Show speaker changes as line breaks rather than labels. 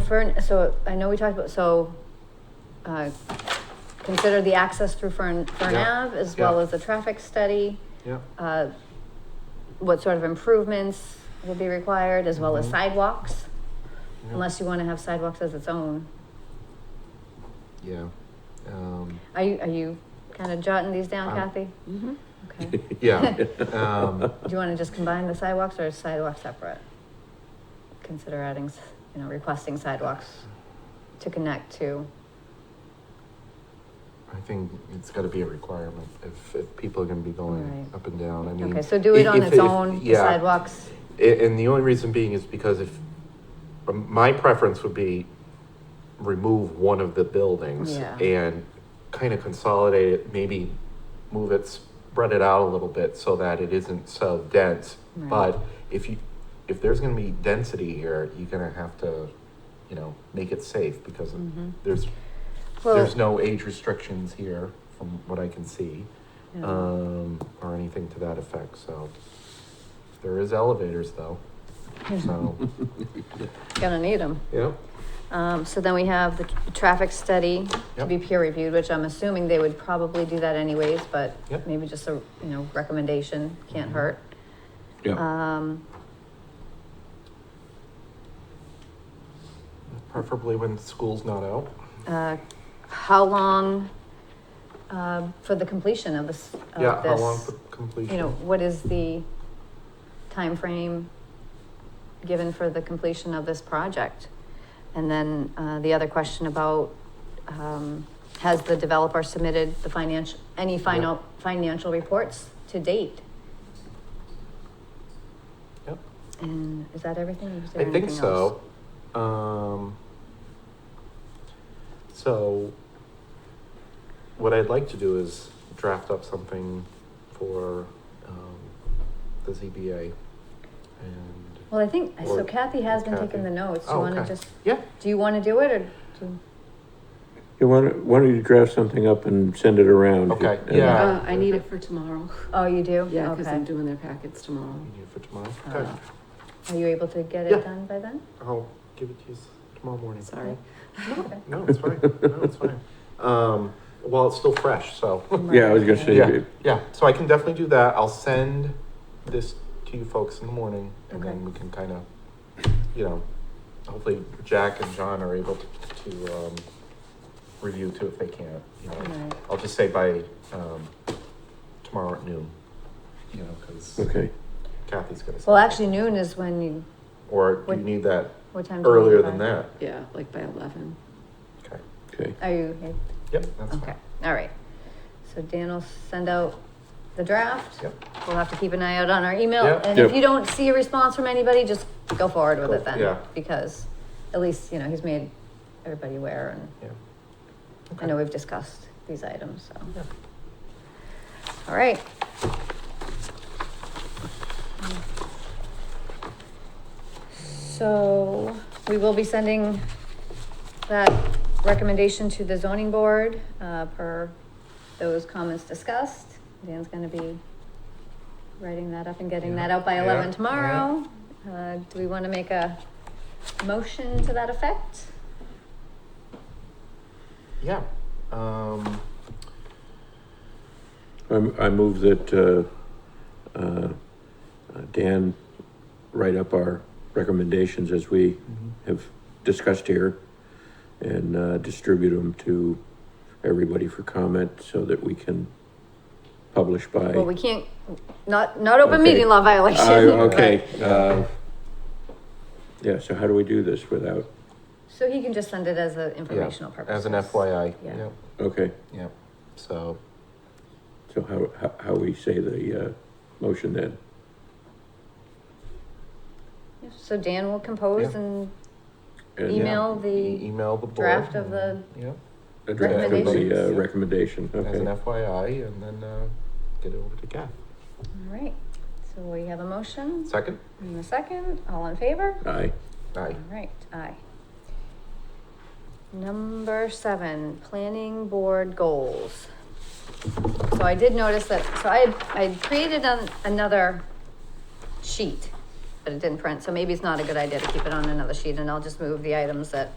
Fern, so I know we talked about, so, uh, consider the access through Fern, Fern
Yeah,
Ave as well
yeah.
as the traffic study.
Yeah.
Uh, what sort of improvements will be required as well as
Mhm.
sidewalks,
yeah,
unless you wanna have sidewalks as its own.
Yeah. Um,
Are you, are you kinda jotting these down,
I'm-
Kathy?
Mm-hmm.
Okay.
Um, yeah. Um,
Do you wanna just combine the sidewalks or is sidewalk separate? Consider adding, s- you know, requesting sidewalks to connect to,
I think it's gotta be a requirement if, if people are gonna be going
Right.
up and down, I mean.
okay, so do it
i-
on
if-
its
if-
own, the
yeah.
sidewalks.
A- And the only reason being is because if, um, my preference would be remove one of the buildings
Yeah.
and kind of consolidate it, maybe move it, spread it out a little bit so that it isn't so dense.
Right.
But if you, if there's gonna be density here, you're gonna have to, you know, make it safe because
Mhm.
there's,
Well,
there's no age restrictions here from what I can see
yeah.
um, or anything to that effect. So there is elevators though. So
gonna need them.
yeah,
Um, so then we have the tr- traffic study to
Yep.
be peer reviewed, which I'm assuming they would probably do that anyways, but
Yep.
maybe just a, you know, recommendation can't
Mhm.
hurt.
Yeah,
Um,
preferably when school's not out.
uh, how long, uh, for the completion of this,
yeah,
of
how long
this?
for completion?
You know, what is the time frame given for the completion of this project? And then, uh, the other question about, um, has the developer submitted the financial, any final, financial reports to date?
Yep.
And is that everything? Is there
I think
anything else?
so. Um, so what I'd like to do is draft up something for um, the ZBA and
Well, I think, so
Or-
Kathy has been taking
Kathy.
the notes. Do you
Oh,
wanna
okay.
just,
yeah,
do you wanna do it or? do-
you want, why don't you draft something up and send it around?
Okay,
And-
yeah.
Uh, I need it for tomorrow.
Oh, you do?
Yeah, because I'm
Okay.
doing their packets tomorrow.
you need it for tomorrow.
Uh,
Okay,
Are you able to get
Yeah.
it done by then?
I'll give it to you s- tomorrow morning.
Uh, Sorry.
Okay.
No, it's fine. No, it's fine. Um, well, it's still fresh, so
Yeah, I was gonna say,
Yeah.
you-
yeah. So I can definitely do that. I'll send this to you folks in the morning, and
Okay.
then we can kind of, you know, hopefully Jack and John are able to, to um, review too if they can't. You know,
Right.
I'll just say by um, tomorrow at noon. You know, because
okay,
Kathy's gonna. send
Well,
it.
actually noon is when you,
Or do
What-
you need that
what time? do you leave
earlier
by?
than that?
Yeah, like by eleven.
Okay.
okay.
Are you,
Yep, that's
okay,
fine.
all right. So Dan will send out the draft.
Yep.
We'll have to keep an eye out on our email.
Yep.
And if
Yep.
you don't see a response from anybody, just go forward with
Go-
it then.
yeah.
Because at least, you know, he's made everybody aware and
Yeah.
I know we've discussed these items, so.
Yeah.
All right. So we will be sending that recommendation to the zoning board, uh, per those comments discussed. Dan's gonna be writing that up and getting that out by
Yeah,
eleven
yeah,
tomorrow. Uh, do we wanna make a motion to that effect?
Yeah. Um,
I'm, I move that, uh, uh, uh, Dan write up our recommendations as we
Mm-hmm.
have discussed here and, uh, distribute them to everybody for comment so that we can publish by.
Well, we can't, not, not open
Okay.
meeting law violation.
I- Okay,
but-
uh, yeah, so how do we do this without,
So he can just send it as an informational purpose.
as an FYI.
Yeah.
Yep.
okay,
Yep. So
so how, how, how we say the, uh, motion then?
So Dan will compose
Yeah.
and
And-
email
e-
the
email the board.
draft of the,
Yeah.
A draft of the, uh,
Recommendations.
recommendation,
As an
okay.
FYI, and then uh, get it over to Kath.
all right. So we have a motion
Second.
and a second, all in favor?
Aye.
Aye.
All right, aye. Number seven, planning board goals. So I did notice that, so I, had- I had created an- another sheet but it didn't print, so maybe it's not a good idea to keep it on another sheet, and I'll just move the items that